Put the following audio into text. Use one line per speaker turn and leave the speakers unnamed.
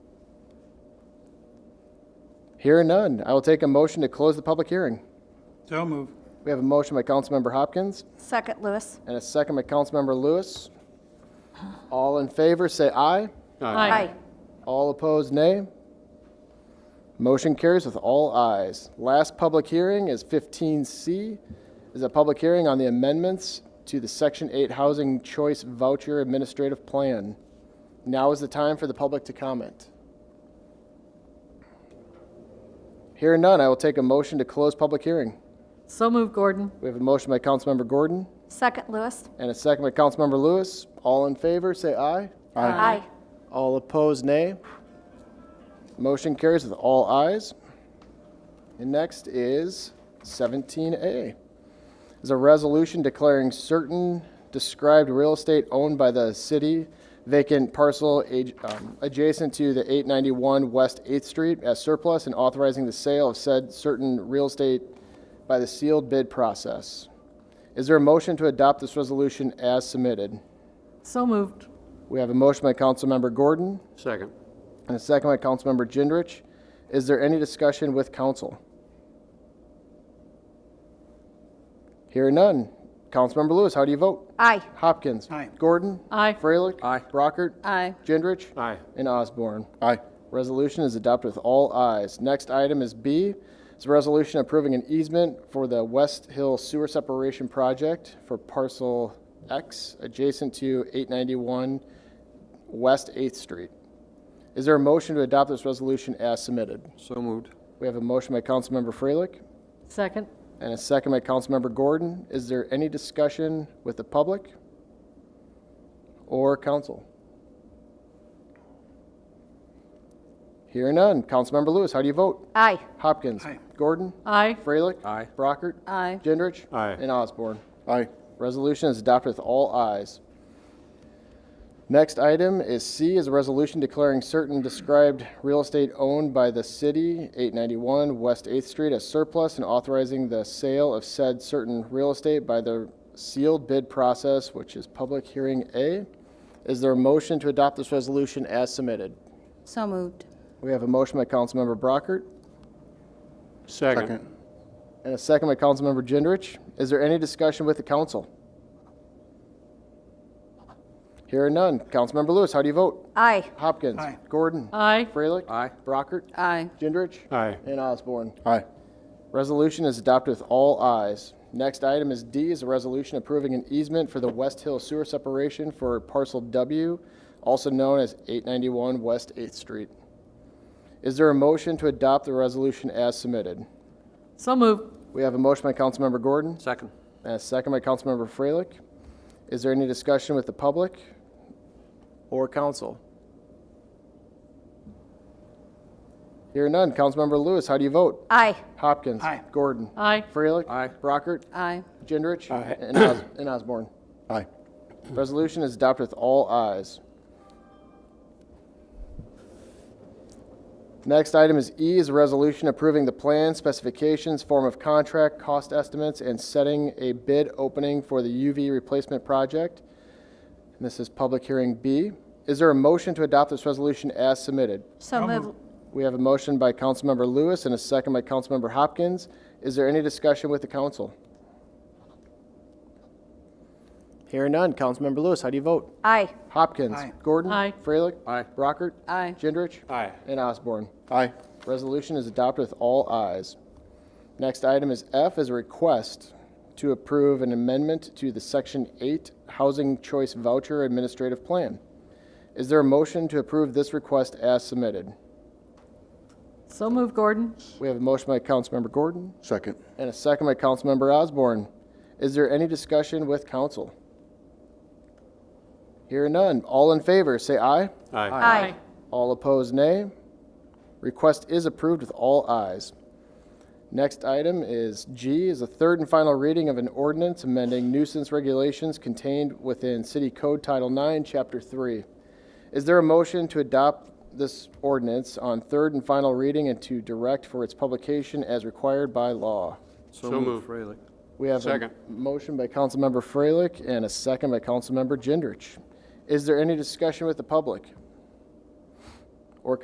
Hearing none, I will take a motion to close the public hearing.
So move.
We have a motion by Councilmember Hopkins
Second, Lewis.
and a second by Councilmember Lewis. All in favor, say aye.
Aye.
All opposed, nay. Motion carries with all ayes. Last public hearing is 15C, is a public hearing on the amendments to the Section 8 Housing Choice Voucher Administrative Plan. Now is the time for the public to comment. Hearing none, I will take a motion to close public hearing.
So move, Gordon.
We have a motion by Councilmember Gordon
Second, Lewis.
and a second by Councilmember Lewis. All in favor, say aye.
Aye.
All opposed, nay. Motion carries with all ayes. And next is 17A. Is a resolution declaring certain described real estate owned by the city vacant parcel ad- um, adjacent to the 891 West 8th Street as surplus and authorizing the sale of said certain real estate by the sealed bid process. Is there a motion to adopt this resolution as submitted?
So moved.
We have a motion by Councilmember Gordon
Second.
and a second by Councilmember Gendrich. Is there any discussion with council? Hearing none. Councilmember Lewis, how do you vote?
Aye.
Hopkins.
Aye.
Gordon.
Aye.
Freilich.
Aye.
Brockert.
Aye.
Gendrich.
Aye.
And Osborne.
Aye.
Resolution is adopted with all ayes. Next item is B. It's a resolution approving an easement for the West Hill Sewer Separation Project for parcel X adjacent to 891 West 8th Street. Is there a motion to adopt this resolution as submitted?
So moved.
We have a motion by Councilmember Freilich
Second.
and a second by Councilmember Gordon. Is there any discussion with the public or council? Hearing none. Councilmember Lewis, how do you vote?
Aye.
Hopkins.
Aye.
Gordon.
Aye.
Freilich.
Aye.
Brockert.
Aye.
Gendrich.
Aye.
And Osborne.
Aye.
Resolution is adopted with all ayes. Next item is C is a resolution declaring certain described real estate owned by the city, 891 West 8th Street, as surplus and authorizing the sale of said certain real estate by the sealed bid process, which is public hearing A. Is there a motion to adopt this resolution as submitted?
So moved.
We have a motion by Councilmember Brockert
Second.
and a second by Councilmember Gendrich. Is there any discussion with the council? Hearing none. Councilmember Lewis, how do you vote?
Aye.
Hopkins.
Aye.
Gordon.
Aye.
Freilich.
Aye.
Brockert.
Aye.
Gendrich.
Aye.
And Osborne.
Aye.
Resolution is adopted with all ayes. Next item is D is a resolution approving an easement for the West Hill Sewer Separation for parcel W, also known as 891 West 8th Street. Is there a motion to adopt the resolution as submitted?
So moved.
We have a motion by Councilmember Gordon.
Second.
And a Uh, second by Councilmember Freilich. Is there any discussion with the public or council? Hearing none. Councilmember Lewis, how do you vote?
Aye.
Hopkins.
Aye.
Gordon.
Aye.
Freilich.
Aye.
Brockert.
Aye.
Gendrich. And Os- and Osborne.
Aye.
Resolution is adopted with all ayes. Next item is E is a resolution approving the plan, specifications, form of contract, cost estimates, and setting a bid opening for the UV replacement project. And this is public hearing B. Is there a motion to adopt this resolution as submitted?
So moved.
We have a motion by Councilmember Lewis and a second by Councilmember Hopkins. Is there any discussion with the council? Hearing none. Councilmember Lewis, how do you vote?
Aye.
Hopkins.
Aye.
Gordon.
Aye.
Freilich.
Aye.
Brockert.
Aye.
Gendrich.
Aye.
And Osborne.
Aye.
Resolution is adopted with all ayes. Next item is F is a request to approve an amendment to the Section 8 Housing Choice Voucher Administrative Plan. Is there a motion to approve this request as submitted?
So moved, Gordon.
We have a motion by Councilmember Gordon
Second.
and a second by Councilmember Osborne. Is there any discussion with council? Hearing none. All in favor, say aye.
Aye.
Aye.
All opposed, nay. Request is approved with all ayes. Next item is G is a third and final reading of an ordinance amending nuisance regulations contained within City Code Title 9, Chapter 3. Is there a motion to adopt this ordinance on third and final reading and to direct for its publication as required by law?
So moved. Freilich.
We have a
Second.
motion by Councilmember Freilich and a second by Councilmember Gendrich. Is there any discussion with the public?